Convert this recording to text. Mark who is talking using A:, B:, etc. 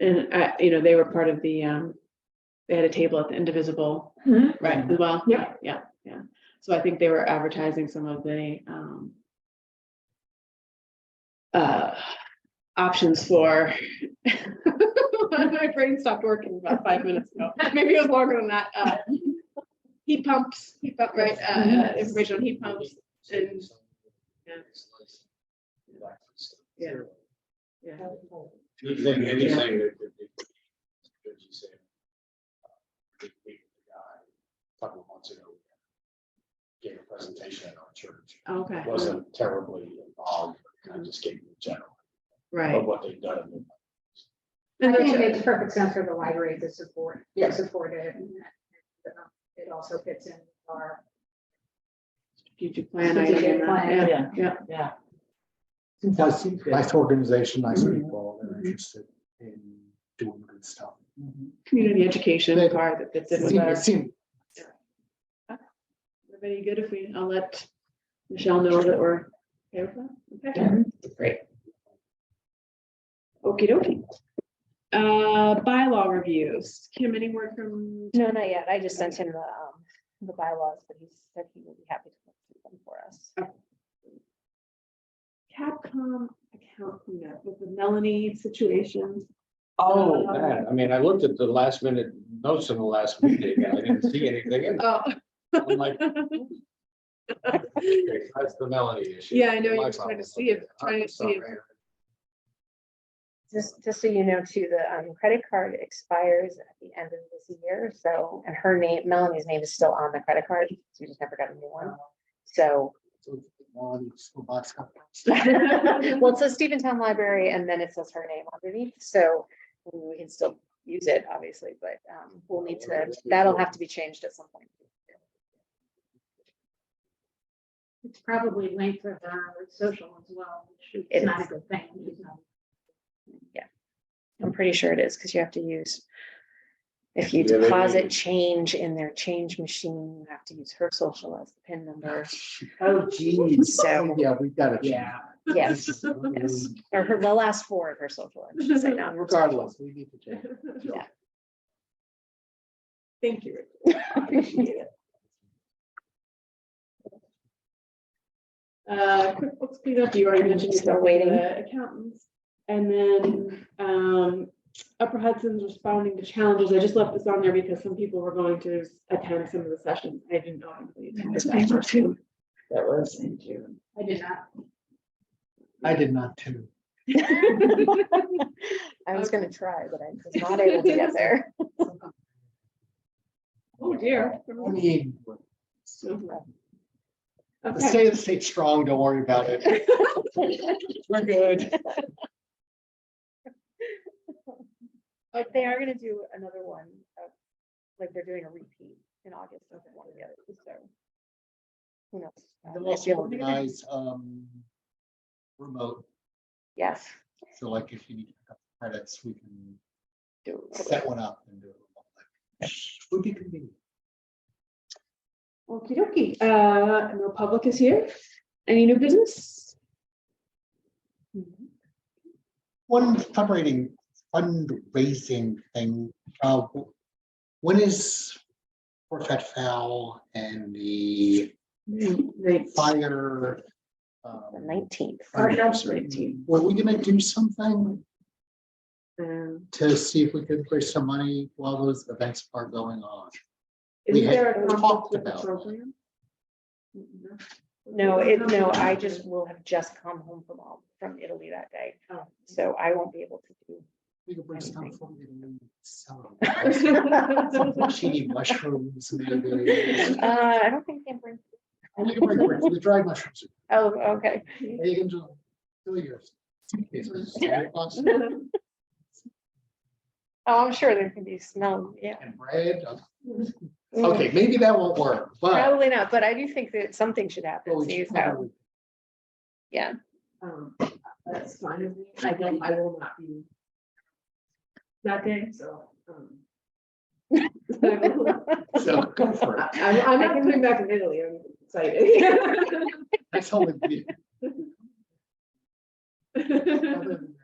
A: And I, you know, they were part of the, um, they had a table at the Indivisible
B: Mm-hmm.
C: Right.
A: as well.
C: Yeah.
A: Yeah, yeah. So I think they were advertising some of the, um, uh, options for, my brain stopped working about five minutes ago. Maybe it was longer than that. Uh, Heat pumps, heat pump, right, uh, uh, information on heat pumps and, yeah. Yeah. yeah.
D: Anything, anything that could be. as you said, uh, we- we- the guy a Couple of months ago. Gave a presentation at our church,
A: Okay,
D: wasn't terribly involved, kind of just gave the general
A: right.
D: of what they've done.
A: And
E: I think it
A: that's-
E: makes perfect sense for the library to support,
C: Yeah.
E: to support it. and that, um, It also fits in our
A: Strategic plan. I
E: Strategic
A: am, uh,
E: plan.
A: yeah,
C: Yeah.
A: Yeah.
C: Yeah.
F: That's nice organization, nice people, they're interested in doing good stuff.
A: Community education
F: They-
A: part that fits in with
F: Seem-
A: our,
F: seem-
A: everybody good if we, I'll let Michelle know that we're. okay with that? Okay. Great. Okey dokey. Uh, bylaw reviews. Kim, any word from,
B: No, not yet. I just sent him the, um, the bylaws, but he said he would be happy to look through them for us.
A: Capcom account cleanup with the Melanie situation?
D: Oh, man, I mean, I looked at the last minute notes in the last meeting, and I didn't see anything, in it.
A: Oh,
D: I'm like. okay, That's the Melanie issue.
A: Yeah, I know,
D: My
A: you were trying to
D: problem.
A: see if-
D: Okay,
A: trying to
D: I'm
A: see if-
D: sorry.
B: Just, just so you know, too, the, um, credit card expires at the end of this year, so, and her name, Melanie's name is still on the credit card, so we just never got a new one. So,
F: so, well, it's a box company.
B: well, it says Steventown Library, and then it says her name underneath, so we can still use it, obviously, but, um, we'll need to, that'll have to be changed at some point.
E: It's probably linked with our social as well, which
B: It
E: is not a good thing. you know.
B: I'm pretty sure it is, because you have to use. If you
D: Yeah, they do.
B: deposit change in their change machine, you have to use her social as the pin number,
C: Oh, geez.
B: so,
F: Yeah, we gotta. change
C: Yeah.
B: yes,
F: this.
B: yes, or her, the last four of her social, I should say now.
F: Regardless, we need to change.
B: Yeah.
A: Thank you. Rachel. I appreciate it. Uh, QuickBooks cleanup, you already mentioned.
B: Still
A: yourself,
B: waiting.
A: the Accountants. And then um, Upper Hudson's responding to challenges. I just left this on there because some people were going to attend some of the sessions. I didn't know. if we attended
B: This
A: that.
B: paper too.
C: That was.
E: I did not.
F: I did not too.
B: I was gonna try, but I was not able to get there.
A: Oh, dear.
F: I mean,
A: Okay.
F: stay, stay strong, don't worry about it. We're good.
B: But they are gonna do another one, of- like they're doing a repeat in August of one of the others, so. Who knows?
F: They'll
B: Um, I
F: also
B: feel-
F: organize, um, remote,
B: Yes.
F: so like if you need to pick up credits, we can
B: do it.
F: set one up and do it. remotely. Would be convenient.
A: Okey dokey. Uh, no public is here. Any new business?
F: One fundraising, fundraising thing, uh, when is Fort Fat Fowl and the Mm-hmm.
A: Thanks.
F: fire? um,
B: The nineteenth.
F: fire
A: Firehouse
F: department?
A: nineteen.
F: Were we gonna do something
A: Um,
F: to see if we could raise some money while those events are going on? We
A: Is
F: had
A: there a conflict
F: talked
A: with the
F: about that.
A: program? Mm-hmm. No.
B: No, it, no, I just will have just come home from, all- from Italy that day,
A: Oh.
B: so
F: Mm-hmm.
B: I won't be able to do.
F: We could bring some
B: Anything.
F: from the. Some porcini mushrooms, maybe.
B: Uh, I don't think they bring,
F: We could bring- bring The dried mushrooms.
B: oh, okay.
F: You can just do your suitcases, boxes,
B: Oh, I'm sure there can be smell, yeah.
F: And bread.
B: Mm,
F: Okay, maybe that won't work, but.
B: Probably not, but I do think that something should happen,
F: but
B: see
F: we should
B: how,
F: probably-
B: yeah.
A: Um, That's fine. with me. I don't, I will not be that day, so. um, I-
F: So go for it.
A: I'm, I'm not coming back from Italy. I'm excited.
F: That's all it is. Other than